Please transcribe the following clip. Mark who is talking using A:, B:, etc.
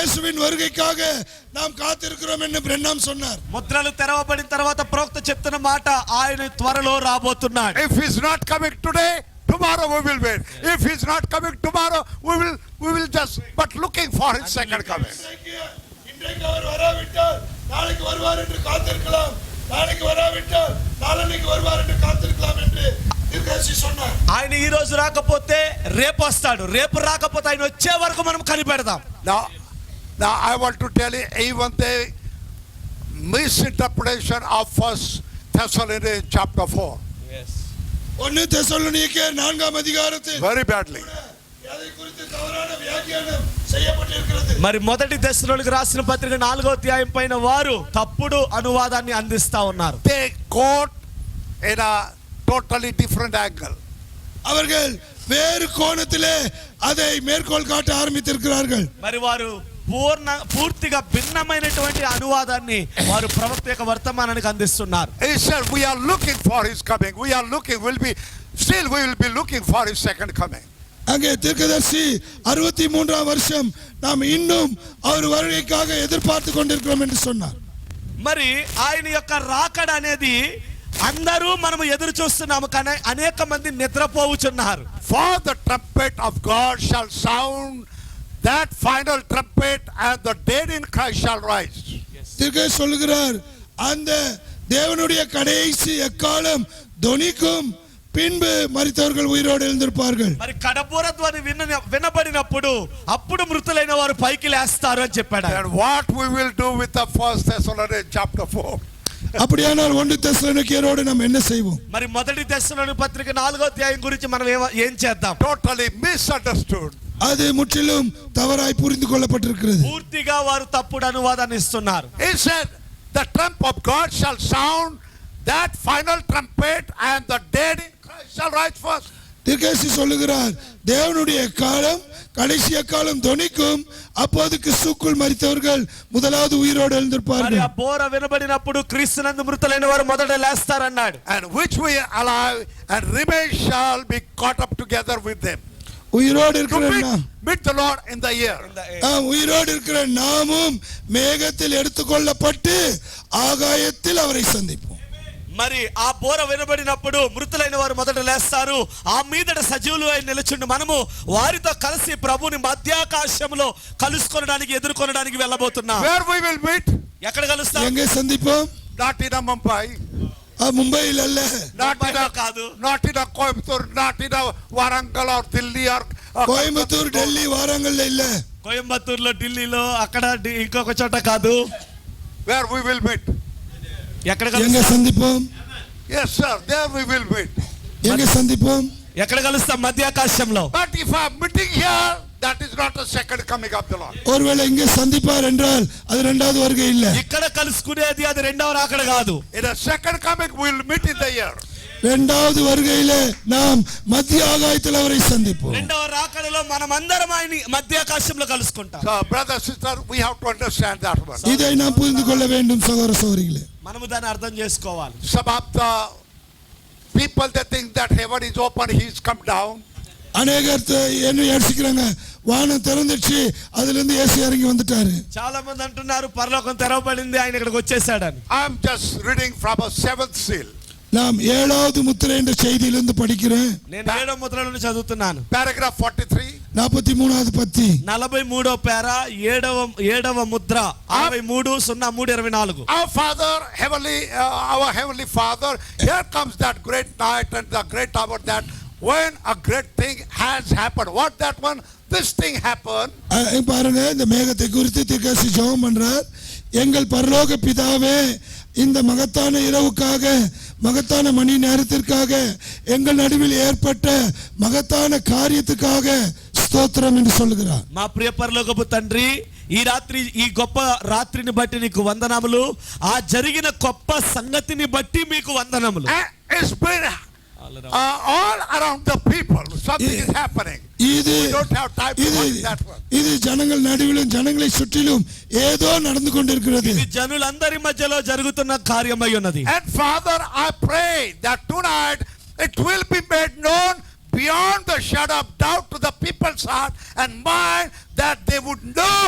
A: இயேசுவின் வருகைக்காக நாம் காத்திருக்கிறோம் என்று பிரண்ணாம் சொன்னார்
B: ముద్రలు తెరవబడిన తర్వాత ప్రవక్త చెప్తున్న మాట ఆయన త్వరలో రాబోతున్నాడు
C: If he's not coming today, tomorrow we will wait. If he's not coming tomorrow, we will we will just but looking for his second coming.
A: இன்றைக்கு இன்றைக்கு அவர் வராவிட்டால் நாளைக்கு வருவார் என்று காத்திருக்கலாம் நாளைக்கு வராவிட்டால் நாளன்னைக்கு வருவார் என்று காத்திருக்கலாம் என்று தீர்க்கதரிசி சொன்னார்
B: ఆయన ఈ రోజు రాకపోతే రేపు వస్తాడు రేపు రాకపోతే ఆయన వచ్చే వరకు మనం కనిపెడదాం
C: Now now I want to tell you even the misinterpretation of first Thessalonians chapter four.
A: ஒன்னு தெசலோனிக்கேயர் நான்காம் அதிகாரத்தில்
C: Very badly.
A: அதை குறித்து தவறான வியாக்கியானம் செய்யப்பட்டிருக்கிறது
B: మరి మొదటి దశలోనికి రాసిన పత్రిక నాలుగో అధ్యాయం పైన వారు తప్పుడు అనువాదాన్ని అందిస్తా ఉన్నారు
C: They quote in a totally different angle.
A: அவர்கள் வேறு கோணத்திலே அதை மேற்கோள் காட்ட ஆரம்பித்திருக்கிறார்கள்
B: మరి వారు పూర్ణ పూర్తిగా భిన్నమైనటువంటి అనువాదాన్ని వారు ప్రవక్త యొక్క వర్తమానానికి అందిస్తున్నారు
C: He said, We are looking for his coming. We are looking, we'll be still we will be looking for his second coming.
A: அங்கே தீர்க்கதரிசி அறுபத்தி மூன்றாம் வருஷம் நாம் இன்னும் அவர் வருகைக்காக எதிர்பார்த்து கொண்டிருக்கிறோம் என்று சொன்னார்
B: మరి ఆయన యొక్క రాకడ అనేది అందరూ మనం ఎదురు చూస్తున్నాము కానీ అనేక మంది నిద్రపోవుచున్నారు
C: For the trumpet of God shall sound, that final trumpet, and the dead in Christ shall rise.
A: திருக்க சொல்லுகிறார் அந்த தேவனுடைய கடைசி எக்காலம் தொனிக்கும் பின்பு மரித்தவர்கள் உயிரோடு எழுந்திருப்பார்கள்
B: మరి కడపూర ధ్వని విన్న వినబడినప్పుడు అప్పుడు మృతులైన వారు పైకి లేస్తారు అని చెప్పాడు ఆయన.
C: And what we will do with the first Thessalonians chapter 4.
A: அப்படியானால் ஒன்று தெசலோனிக்கேயரோடு நாம் என்ன செய்வோம்
B: మరి మొదటి దశలోని పత్రిక నాలుగో అధ్యాయం గురించి మనం ఏమ- ఏం చేద్దాం
C: Totally misunderstood.
A: அது முற்றிலும் தவறாய் புரிந்து கொள்ளப்பட்டிருக்கிறது
B: పూర్తిగా వారు తప్పుడు అనువాదాన్ని ఇస్తున్నారు
C: He said, The trump of God shall sound, that final trumpet, and the dead in Christ shall rise first.
A: திருக்கேசி சொல்லுகிறார் தேவனுடைய காலம் கடைசி காலம் தொனிக்கும் அப்போது கிறிஸ்துக்குள் மரித்தவர்கள் முதலாவது உயிரோடு
B: మరి
A: எழுந்திருப்பார்கள்
B: ఆ బోర వినబడినప్పుడు క్రీస్తునందు మృతులైన వారు మొదట లేస్తారన్నాడు
C: And which we alive and remain shall be caught up together with them.
A: உயிரோடு
C: To
A: இருக்கிற
C: meet,
A: நாம்
C: meet the Lord in the air.
A: ஆம், உயிரோடு இருக்கிற நாமும் மேகத்தில் எடுத்துக்கொள்ளப்பட்டு ஆகாயத்தில் அவரை சந்திப்போம்
B: మరి ఆ బోర వినబడినప్పుడు మృతులైన వారు మొదట లేస్తారు ఆ మీదట సజీవులు అయి నిలుచుండి మనము వారితో కలిసి ప్రభుని మధ్యాకాశంలో కలుసుకొనడానికి ఎదుర్కొనడానికి వెళ్ళబోతున్నాం
C: Where we will meet?
B: ఎక్కడ కలుస్తాం
A: எங்கே சந்திப்போம்
C: Not in a Mumbai,
A: ஆ, மும்பையில் அல்ல
C: not in
B: Mumbai
C: a
B: లో కాదు.
C: not in a Coimbatore, not in a Warangal or Delhi or or-
A: Coimbatore Delhi வாரங்கள்ல இல்ல
B: కోయంబత్తూరులో ఢిల్లీలో అక్కడ డి- ఇంకొక చోట కాదు
C: where we will meet.
B: ఎక్కడ
A: எங்க
B: కలుస్తాం
A: சந்திப்போம்
C: Yes, sir, there we will meet.
A: எங்க சந்திப்போம்
B: ఎక్కడ కలుస్తాం మధ్యాకాశంలో
C: But if I'm meeting here, that is not the second coming of the Lord.
A: ஒருவேளை இங்கே சந்திப்பார் என்றால் அது இரண்டாவது வருகை இல்ல
B: ఇక్కడ కలుసుకునేది అది రెండవ రాకడ కాదు
C: In the second coming, we'll meet in the air.
A: இரண்டாவது வருகையில நாம் மத்திய ஆகாயத்தில் அவரை சந்திப்போம்
B: రెండవ రాకడలో మనమందరం ఆయన మధ్యాకాశంలో కలుసుకుంటాం
C: So, brother, sister, we have to understand that one.
A: இதை நாம் புரிந்து கொள்ள வேண்டும் சகோதர சகோதரிகளே
B: మనము దాన్ని అర్థం చేసుకోవాలి
C: Some of the people they think that heaven is open, he's come down.
A: அநேகர் த- என்ன யோசிக்கிறாங்க வானம் திறந்துச்சு அதுல இருந்து இயேசு இறங்கி வந்துட்டாரு
B: చాలా మంది అంటున్నారు పరలోకం తెరవబడింది ఆయన ఇక్కడికి వచ్చేసాడని
C: I'm just reading from a seventh seal,
A: நாம் ஏழாவது முத்திரை என்ற செய்தியிலிருந்து படிக்கிறேன்
B: నేను ఏడో ముద్ర నుండి చదువుతున్నాను
C: paragraph 43.
A: நாற்பத்தி மூணாவது பத்தி
B: నలభై మూడో పేర ఏడవ ఏడవ ముద్ర అరవై మూడు సున్నా మూడు ఇరవై నాలుగు
C: Our Father, heavenly, uh, our heavenly Father, here comes that great night and the great hour that when a great thing has happened. What that one? This thing happened.
A: அஹ் இங்க பாருங்க இந்த மேகத்தை குறித்து திருக்காசி ஜெபம் பண்றார் எங்கள் பரலோக பிதாவே இந்த மகத்தான இரவுக்காக மகத்தான மணி நேரத்திற்காக எங்கள் நடுவில் ஏற்பட்ட மகத்தான காரியத்துக்காக ஸ்தோத்திரம் என்று சொல்லுகிறார்
B: మా ప్రియ పరలోకపు తండ్రి ఈ రాత్రి ఈ గొప్ప రాత్రిని బట్టి నీకు వందనములు ఆ జరిగిన గొప్ప సంగతిని బట్టి మీకు వందనములు
C: And it's been uh, all around the people. Something is happening.
A: இது
C: We don't have time to
A: இது
C: watch that one.
A: இது ஜனங்கள் நடுவிலும் ஜனங்களை சுற்றிலும் ஏதோ நடந்து கொண்டிருக்கிறது
B: ఇది జనులందరి మధ్యలో జరుగుతున్న కార్యమై ఉన్నది
C: And Father, I pray that tonight it will be made known beyond the shadow of doubt to the people's heart and mind that they would know